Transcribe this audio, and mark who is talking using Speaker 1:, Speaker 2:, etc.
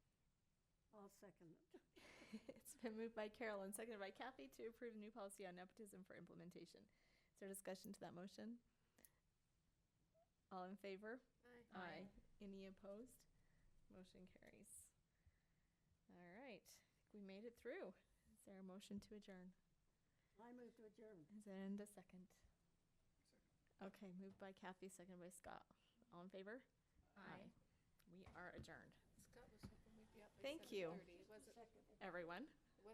Speaker 1: second it.
Speaker 2: It's been moved by Carol and seconded by Kathy to approve new policy on nepotism for implementation. Is there discussion to that motion? All in favor? Aye. Any opposed? Motion carries. All right, I think we made it through. Is there a motion to adjourn?
Speaker 1: I move to adjourn.
Speaker 2: Is there and a second? Okay, moved by Kathy, seconded by Scott. All in favor? We are adjourned.
Speaker 3: Scott was hoping we'd be up by
Speaker 2: Thank you.
Speaker 3: 7:30. It wasn't-
Speaker 1: Second.
Speaker 2: Everyone?